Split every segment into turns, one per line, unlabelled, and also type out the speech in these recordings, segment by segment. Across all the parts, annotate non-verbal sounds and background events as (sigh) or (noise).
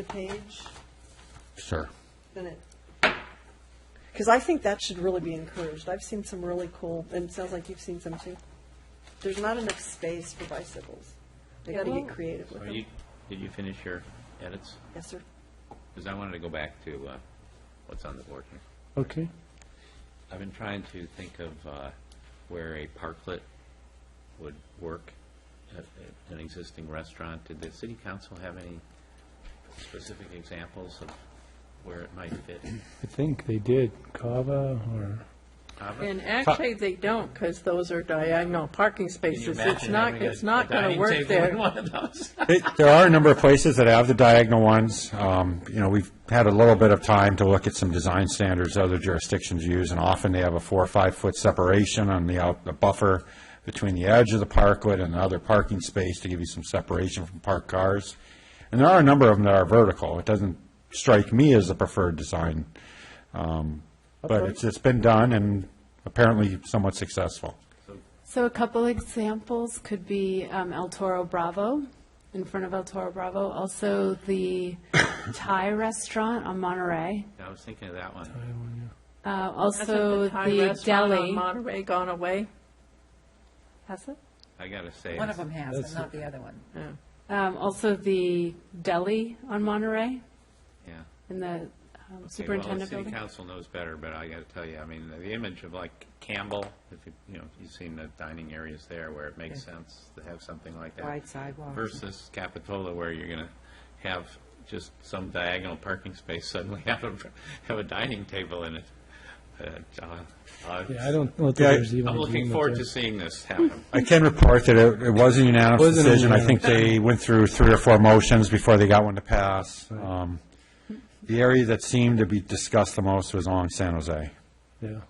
the page,
Sure.
then it, because I think that should really be encouraged. I've seen some really cool, and it sounds like you've seen some too. There's not enough space for bicycles. They gotta get creative with
Are you,
them.
did you finish your edits?
Yes, sir.
Because I wanted to go back to uh, what's on the board here.
Okay.
I've been trying to think of uh, where a parklet would work at at an existing restaurant. Did the city council have any specific examples of where it might fit?
I think they did Kava or,
Ava?
And actually, they don't, because those are diagonal parking
Can you
spaces. It's
imagine
not,
having a-
it's not
a
going to
dining
work
table in
there.
one of those?
It- There are a number of places that have the diagonal ones. Um, You know, we've had a little bit of time to look at some design standards other jurisdictions use, and often they have a four or five-foot separation on the out, the buffer between the edge of the parklet and the other parking space to give you some separation from parked cars. And there are a number of them that are vertical. It doesn't strike me as the preferred design. Um, But it's, it's been done and apparently somewhat successful.
So a couple examples could be um, El Toro Bravo, in front of El Toro Bravo. Also, the Thai restaurant on Monterey.
(laughs) I was thinking of that one.
Uh,
Hasn't
Also,
Thai
the
restaurant on
deli.
Monterey gone away?
Has it?
I gotta say.
One of them has, but not the other one.
Um, Also, the deli on Monterey
Yeah.
in the um,
Okay, well, the
superintendent
City
building.
council knows better, but I got to tell you, I mean, the image of like Campbell, if you, you know, you've seen the dining areas there where it makes sense to have something like that.
Wide sidewalks.
Versus Capitola where you're going to have just some diagonal parking space suddenly (laughs) have a, have a dining table in it. Uh, uh, uh,
yeah, I don't, I don't think
Yeah,
there's even.
I'm
an
looking
agreement
forward
there.
to seeing this happen.
I can report that it it was a unanimous
Wasn't a
decision. I think
unanimous.
they went through three or four motions before they got one to pass. Um, The area that seemed to be discussed the most was along San Jose,
Yeah.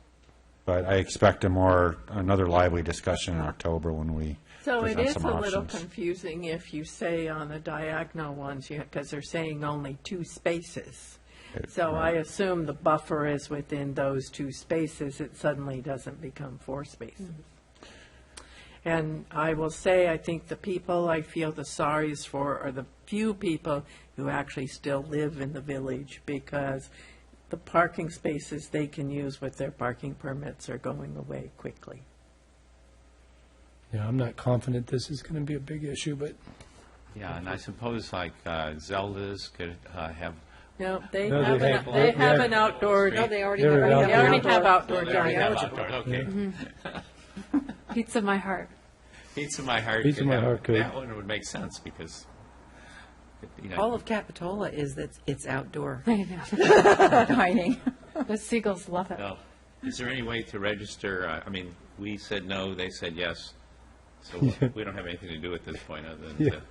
but I expect a more, another lively discussion in October when we
So it
present
is
some
a little
options.
confusing if you say on the diagonal ones, because they're saying only two spaces. So I assume the buffer is within those two spaces, it suddenly doesn't become four spaces. And I will say, I think the people I feel the sorriest for are the few people who actually still live in the village because the parking spaces they can use with their parking permits are going away quickly.
Yeah, I'm not confident this is going to be a big issue, but
Yeah, and I suppose like uh, Zelda's could uh, have.
No, they
No, they have-
have, an- they
they
have
have-
an outdoor,
No, they
already
They were have
oh, they already have outdoor
They already have
dining.
outdoor, Okay.
Pizza My Heart. (laughs)
Pizza My Heart.
Pizza
could
My
have-
Heart could.
That one would make sense because, you know.
All of Capitola is that it's outdoor
I know.
dining.
The seagulls love it.
Well, Is there any way to register, uh, I mean, we said no, they said yes,
(laughs)
so we don't have anything to do at this point other than, to-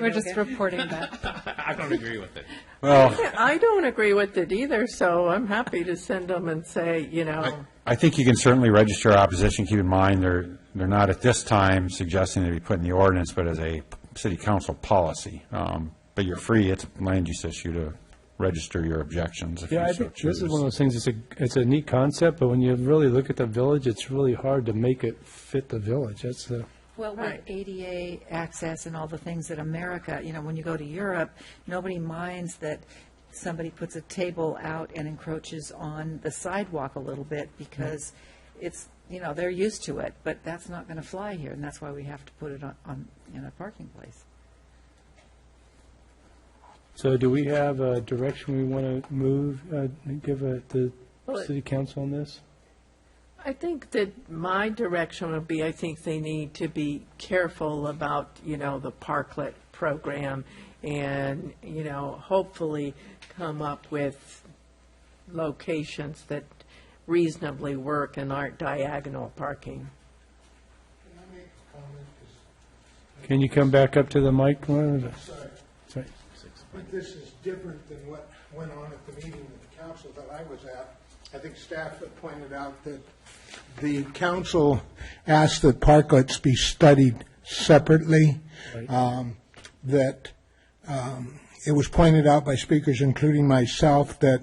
We're just reporting back.
I don't agree with it.
Well,
I don't agree with it either, so I'm happy to send them and say, you know,
I think you can certainly register opposition. Keep in mind, they're, they're not at this time suggesting they be put in the ordinance, but as a p- city council policy. Um, But you're free, it's a land use issue to register your objections if you
yeah, I
so
think this is
choose.
one of those things, it's a, it's a neat concept, but when you really look at the village, it's really hard to make it fit the village. That's the,
Well, with ADA access and all the things that America, you know, when you go to Europe, nobody minds that somebody puts a table out and encroaches on the sidewalk a little bit because it's, you know, they're used to it, but that's not going to fly here, and that's why we have to put it on, on, in a parking place.
so do we have a direction we want to move, uh, give uh, the
Well, it-
city council on this?
I think that my direction would be, I think they need to be careful about, you know, the parklet program and, you know, hopefully come up with locations that reasonably work and aren't diagonal parking.
Can you come back up to the mic? Lauren? Sorry.
But this is different than what went on at the meeting of the council that I was at. I think staff had pointed out that the council asked that parklets be studied separately, um, that um, it was pointed out by speakers, including myself, that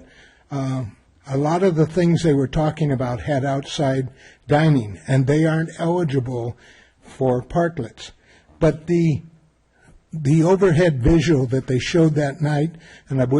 um, a lot of the things they were talking about had outside dining, and they aren't eligible for parklets. But the the overhead visual that they showed that night, and I wish